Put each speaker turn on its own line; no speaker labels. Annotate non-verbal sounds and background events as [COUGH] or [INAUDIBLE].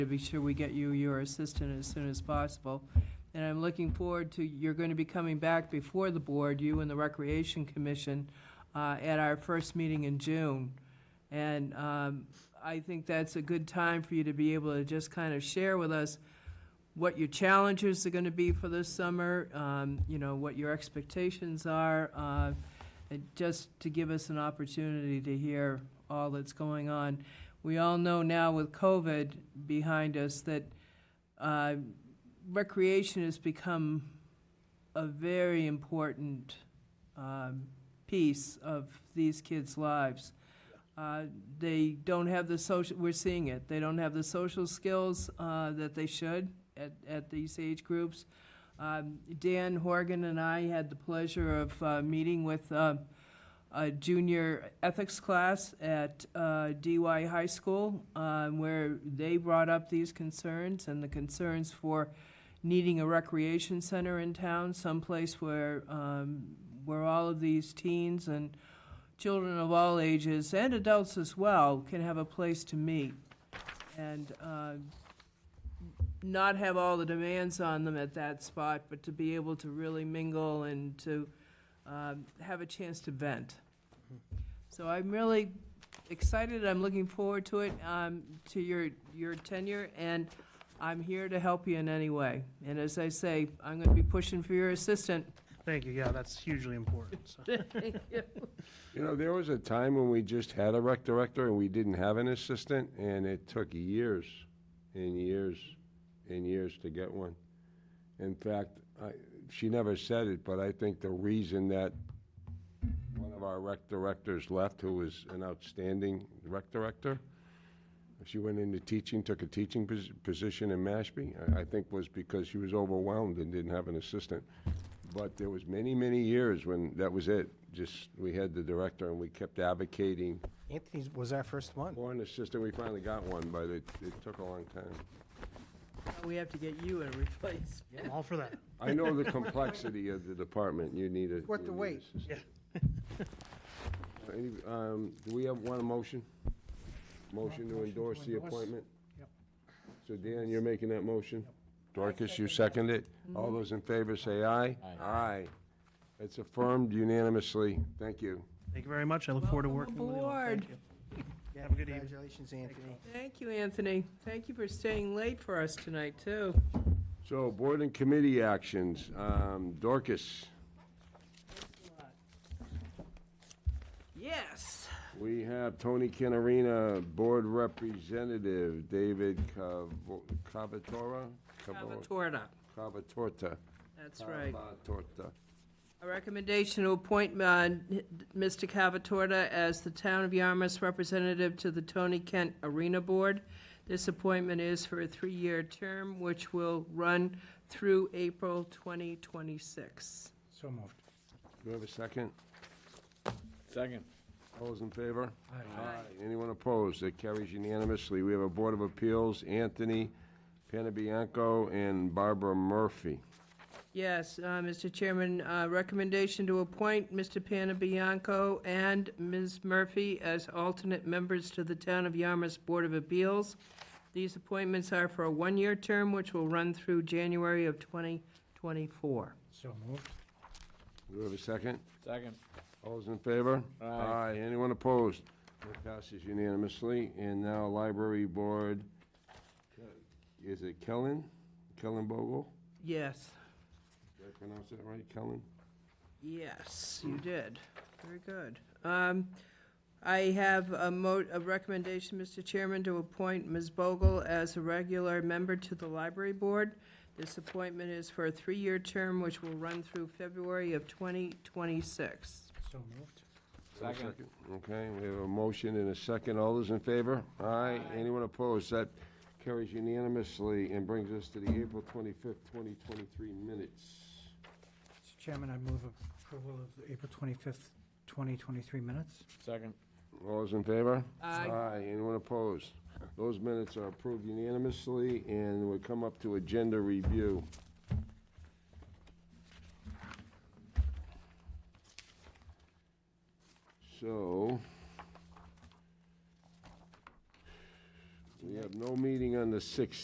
to be sure we get you your assistant as soon as possible. And I'm looking forward to, you're going to be coming back before the board, you and the Recreation Commission, uh, at our first meeting in June. And um, I think that's a good time for you to be able to just kind of share with us what your challenges are going to be for this summer, um, you know, what your expectations are, uh, and just to give us an opportunity to hear all that's going on. We all know now with COVID behind us that uh, recreation has become a very important um, piece of these kids' lives. Uh, They don't have the social, we're seeing it, they don't have the social skills uh, that they should at, at these age groups. Um, Dan Horgan and I had the pleasure of uh, meeting with uh, a junior ethics class at uh, DY High School, um, where they brought up these concerns and the concerns for needing a recreation center in town, someplace where, um, where all of these teens and children of all ages, and adults as well, can have a place to meet. And uh, not have all the demands on them at that spot, but to be able to really mingle and to um, have a chance to vent. So I'm really excited, I'm looking forward to it, um, to your, your tenure, and I'm here to help you in any way. And as I say, I'm gonna be pushing for your [LAUGHS] assistant.
Thank you, yeah, that's hugely important, so.
You know, there was a time when we just had a rec director and we didn't have an assistant, and it took years and years and years to get one. In fact, I, she never said it, but I think the reason that one of our rec directors left, who was an outstanding rec director, she went into teaching, took a teaching pos- position in Mashpee, I, I think was because she was overwhelmed and didn't have an assistant. But there was many, many years when that was it. Just, we had the director and we kept advocating
Anthony's was our first one.
for an assistant. We finally got one, but it, it took a long time.
We have to get you a replacement.
I'm all for that.
I know the complexity of the department. You need a.
Worth
you
the
need
wait.
assistance. Any- Um, do we have one motion? Motion to endorse the
endorse.
appointment?
Yep.
So Dan, you're making that motion? Dorcas, you second it? All those in favor say aye? Aye. It's affirmed unanimously. Thank you.
Thank you very much, I look forward to
Welcome
working with you all. Thank
aboard.
you.
Yeah,
Have a good evening.
Congratulations, Anthony.
Thank you, Anthony. Thank you for staying late for us tonight, too.
So board and committee actions. Um, Dorcas,
Yes.
we have Tony Canarina, board representative, David Cavo- Cavatora? Cavo-
Torta,
Cavatorta.
that's right.
Cavatorta.
A recommendation to appoint uh, Mr. Cavatorta as the Town of Yarmouth's representative to the Tony Kent Arena Board. This appointment is for a three-year term, which will run through April 2026.
So moved.
Do we have a second?
Second.
All those in favor? Aye. Anyone opposed? That carries unanimously. We have a Board of Appeals, Anthony Panabianco and Barbara Murphy.
Yes, uh, Mr. Chairman, uh, recommendation to appoint Mr. Panabianco and Ms. Murphy as alternate members to the Town of Yarmouth Board of Appeals. These appointments are for a one-year term, which will run through January of 2024.
So moved.
Do we have a second?
Second.
All those in favor?
Aye.
Anyone opposed? That passes unanimously. And now Library Board, is it Kellen? Kellen Bogle?
Yes,
Did I pronounce that right? Kellen?
yes, you did. Very good. Um, I have a mo, a recommendation, Mr. Chairman, to appoint Ms. Bogle as a regular member to the Library Board. This appointment is for a three-year term, which will run through February of 2026.
So moved.
Second.
Okay, we have a motion and a second. All those in favor? Aye. Anyone opposed? That carries unanimously and brings us to the April 25th, 2023 minutes.
Mr. Chairman, I move approval of the April 25th, 2023 minutes.
Second.
All those in favor?
Aye.
Anyone opposed? Those minutes are approved unanimously, and we come up to agenda review. So, We have no meeting on the 16th.